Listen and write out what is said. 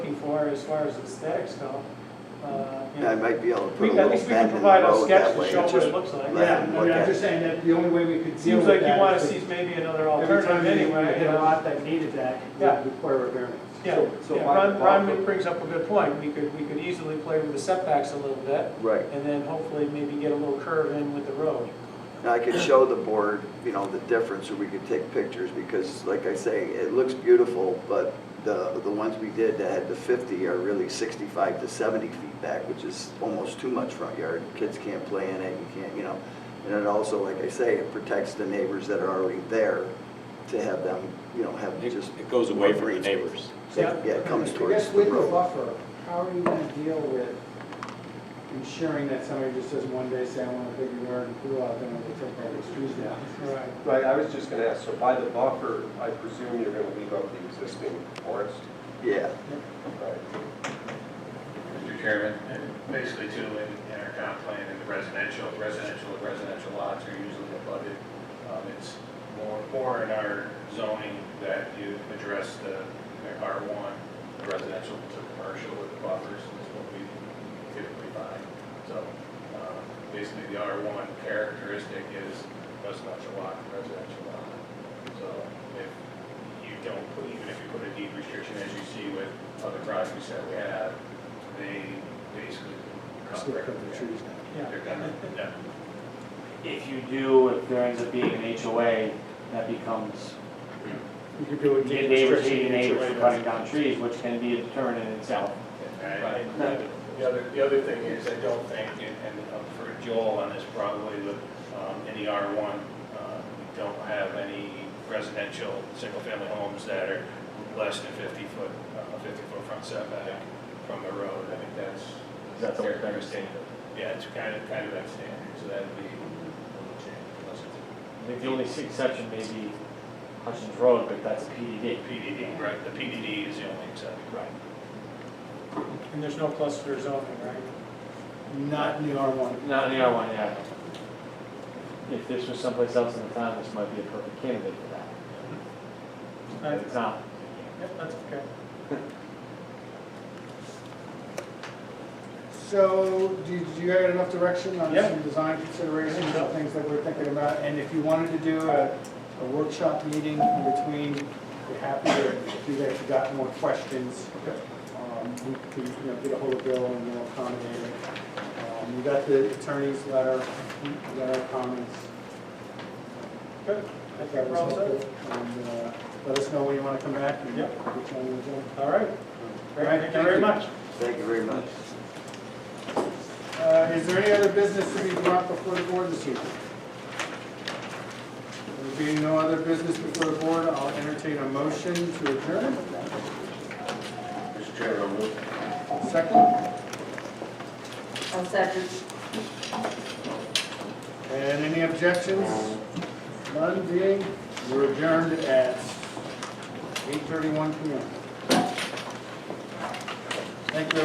where, as far as aesthetics go. uh, you I know. might be able to We- put a At little least we can bend in the provide a road sketch that to way. show what Just it looks like. let Yeah, them I mean, look I'm at just it. saying that the only way we could deal Seems with like you that wanna is see if- maybe another Every time alternative you you anyway. hit a uh, lot that needed that, it Yeah. would require a variance. Yeah, So- so yeah, my- Ron, Ron brings up a good point, we could, we could easily play with the setbacks a little bit, Right. and then hopefully maybe get a little curve in with the road. And I could show the board, you know, the difference, or we could take pictures, because like I say, it looks beautiful, but the, the ones we did that had the fifty are really sixty-five to seventy feet back, which is almost too much front yard. Kids can't play in it, you can't, you know. And it also, like I say, it protects the neighbors that are already there to have them, you know, have It just. it goes away from the neighbors. Yeah. Yeah, it comes I guess towards the with the road. buffer, how are you gonna deal with ensuring that somebody just doesn't one day say, I want a bigger yard and pool out there and they take all these trees down? Right. Right, I was just gonna ask, so by the buffer, I presume you're gonna leave up the existing forest? Yeah, Right. Mr. Chairman, and basically too, in, in our comp plan, in the residential, residential, residential lots are usually flooded. Um, it's more, more in our zoning that you address the R one, residential to commercial with the buffers, is what we typically find. So, um, basically, the R one characteristic is residential lot, residential lot. So, if you don't put, even if you put a deed restriction, as you see with other projects that we have, they basically. Still cut the trees down. Yeah. They're gonna, yeah. If you do, if there ends up being an HOA, that becomes You could do it. neighbors hating neighbors for cutting down trees, which can be a deterrent in itself. Right. The other, the other thing is, I don't think, and and, um, for Joel on this probably, but um, in the R1, uh, we don't have any residential, single-family homes that are less than 50-foot, 50-foot front setback from the road. I think that's. That's what they're characteristic. Yeah, it's kind of, kind of that standard, so that'd be a little change unless it's I think the only exception may be Hutchins Road, but that's a PDD. PDD, right? The PDD is the only exception. Right. And there's no cluster zoning, right? Not in the R one. Not in the R one, yeah. If this was someplace else in the town, this might be a perfect candidate for that. Right. But It's not. Yep, that's okay. So, do do you have enough direction on Yeah. some design considerations, Yeah. and things that we're thinking about? And if you wanted to do a a workshop meeting in between, we're happy to, if you guys have got more questions, um, we can, you know, get ahold of Bill and we'll accommodate it. Um, You got the attorney's letter, you got our comments. Good. I That think we're was all set. helpful. And uh, let us know when you want to come back. and Yeah. we'll try and adjourn. All right. All right, Thank you very much. thank you very much. Uh, Is there any other business to be brought before the board this evening? There being no other business before the board, I'll entertain a motion to adjourn. Mr. Chairman, I'll move. Second, I'll second. and any objections? None being, we're adjourned at 8:31 PM. Thank you.